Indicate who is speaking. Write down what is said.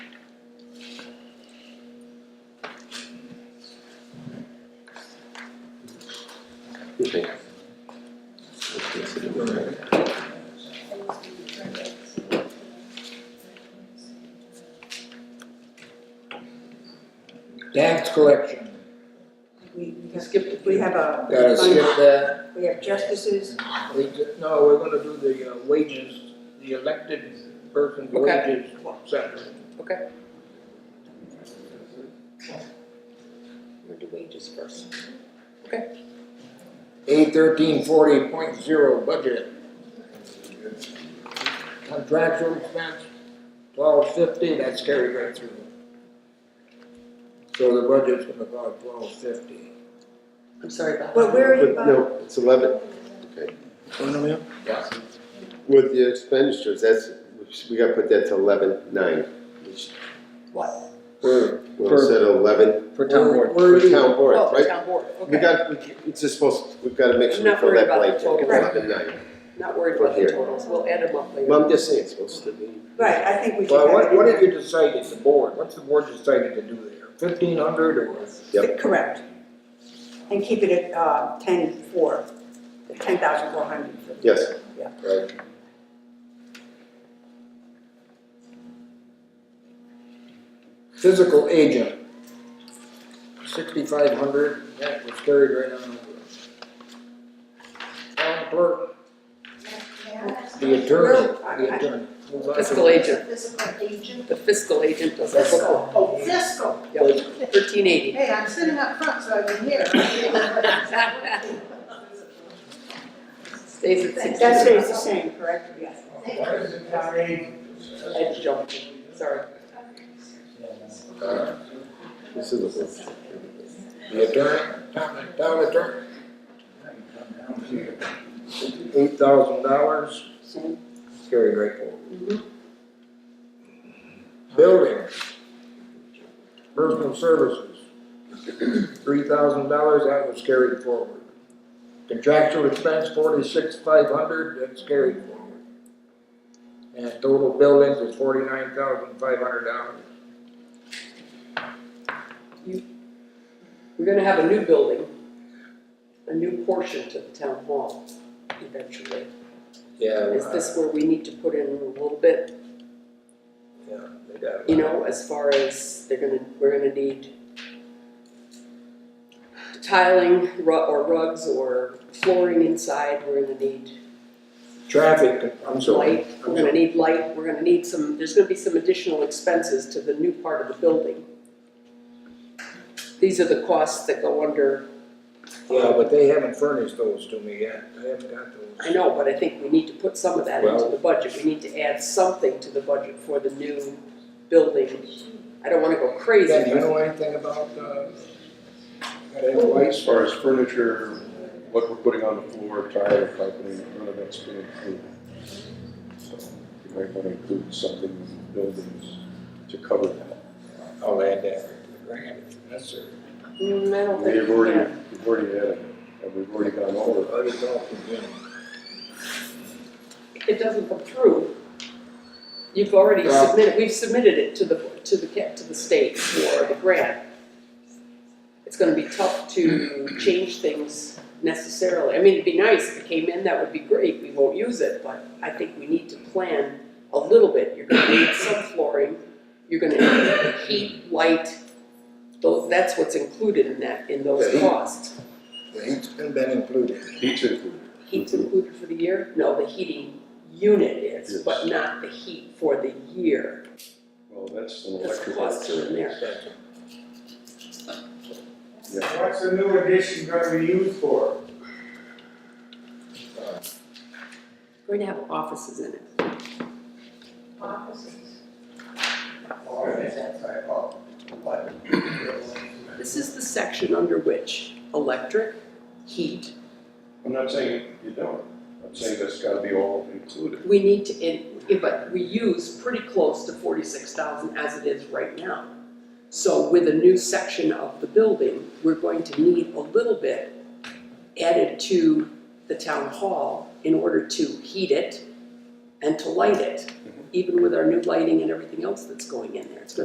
Speaker 1: there. Let's consider that.
Speaker 2: Tax collection,
Speaker 3: We, we skip, we have a,
Speaker 2: gotta skip that,
Speaker 3: we have justices,
Speaker 2: we, ju- no, we're gonna do the uh, wages, the elected person's
Speaker 4: Okay.
Speaker 2: wages separate.
Speaker 4: We'll do wages first.
Speaker 2: A thirteen forty point zero budget. Contractual expense, twelve fifty, that's carried right through. So the budget's gonna go at twelve fifty.
Speaker 4: I'm sorry, Bob.
Speaker 3: but where are you,
Speaker 1: But
Speaker 3: Bob?
Speaker 1: no, it's eleven,
Speaker 2: Yeah.
Speaker 1: with the expenditures, that's, we gotta put that to eleven nine.
Speaker 4: What?
Speaker 1: We're, we're set at eleven
Speaker 2: For town board.
Speaker 1: for town board,
Speaker 4: Oh, the
Speaker 1: right?
Speaker 4: town board,
Speaker 1: We
Speaker 4: okay.
Speaker 1: got, we ca- it's just supposed, we've gotta make
Speaker 4: I'm
Speaker 1: sure
Speaker 4: not
Speaker 1: we fill
Speaker 4: worried
Speaker 1: that
Speaker 4: about the
Speaker 1: blank,
Speaker 4: total.
Speaker 1: eleven nine.
Speaker 4: Not worried about the
Speaker 1: Here.
Speaker 4: totals, we'll add them up later.
Speaker 1: Well, I'm just saying, it's supposed to be.
Speaker 3: Right, I think we should have.
Speaker 2: Well, what,
Speaker 3: it
Speaker 2: what
Speaker 3: in
Speaker 2: have you decided, the board, what's the board decided to do there? Fifteen hundred or?
Speaker 3: there.
Speaker 1: Yep.
Speaker 3: Correct. And keep it at, uh, ten four, ten thousand four hundred.
Speaker 1: Yes.
Speaker 3: Yeah.
Speaker 1: Right.
Speaker 2: Physical agent, sixty-five hundred, that was carried right on over. Town clerk, the attorney, the attorney. Move on to-
Speaker 4: Fiscal agent,
Speaker 5: Physical agent.
Speaker 4: the fiscal agent does that.
Speaker 5: Fiscal, oh, fiscal.
Speaker 4: Thirteen eighty.
Speaker 5: Hey, I'm sitting up front, so I can hear.
Speaker 4: Stays at sixteen.
Speaker 3: That stays the same, correct? Yes.
Speaker 4: Edge jump, sorry.
Speaker 2: Uh,
Speaker 1: This is the
Speaker 2: The attorney, town, town attorney. Eight thousand dollars,
Speaker 3: Same.
Speaker 2: carried right over. Building. Personal services. Three thousand dollars, that was carried forward. Contractual expense, forty-six, five hundred, that's carried forward. And total buildings is forty-nine thousand, five hundred dollars.
Speaker 4: We're gonna have a new building, a new portion to the town hall eventually.
Speaker 2: Yeah.
Speaker 4: Is this where we need to put in a little bit,
Speaker 2: Yeah, they got it.
Speaker 4: you know, as far as they're gonna, we're gonna need tiling ru- or rugs or flooring inside, we're gonna need
Speaker 2: Traffic, I'm sorry.
Speaker 4: light, we're gonna need light, we're gonna need some, there's gonna be some additional expenses to the new part of the building. These are the costs that go under,
Speaker 2: Yeah, but they haven't furnished those to me yet, I haven't got
Speaker 4: I
Speaker 2: those.
Speaker 4: know, but I think we need to put some of that into
Speaker 2: Well-
Speaker 4: the budget, we need to add something to the budget for the new building. I don't wanna go crazy,
Speaker 2: Ben, do you
Speaker 4: but
Speaker 2: know anything about, uh, got advice?
Speaker 6: As far as furniture, what we're putting on the floor, tile, piping, none of that's been included. So you might want to include something in the buildings to cover that.
Speaker 2: I'll add that to the grant, if necessary.
Speaker 4: mm, I don't think,
Speaker 6: We've already, we've already had, it, and we've already gone over. it.
Speaker 2: Other dogs are doing it.
Speaker 4: yeah, it doesn't come through. You've already
Speaker 2: Well-
Speaker 4: submitted, we've submitted it to the, to the, ca- to the state for the grant. It's gonna be tough to change things necessarily, I mean, it'd be nice if it came in, that would be great, we won't use it, but I think we need to plan a little bit, you're gonna need some flooring, you're gonna need heat, light, those, that's what's included in that, in those
Speaker 2: Yeah.
Speaker 4: costs.
Speaker 2: The heat's been been included.
Speaker 6: Heat's included.
Speaker 4: Heat's included for the year? No, the heating unit is,
Speaker 6: Yes.
Speaker 4: but not the heat for the year.
Speaker 6: Well, that's an
Speaker 4: There's
Speaker 6: electrical.
Speaker 4: costs are in there.
Speaker 7: What's the new addition gonna be used for?
Speaker 4: Going to have offices in it.
Speaker 7: Oh,
Speaker 4: This is the section under which electric, heat,
Speaker 6: I'm not saying you don't. I'm saying that's got to be all included.
Speaker 4: we need to, in- yeah, but we use pretty close to forty-six thousand as it is right now. So with a new section of the building, we're going to need a little bit added to the town hall in order to heat it and to light it, even with our new lighting and everything else that's going in there. It's gonna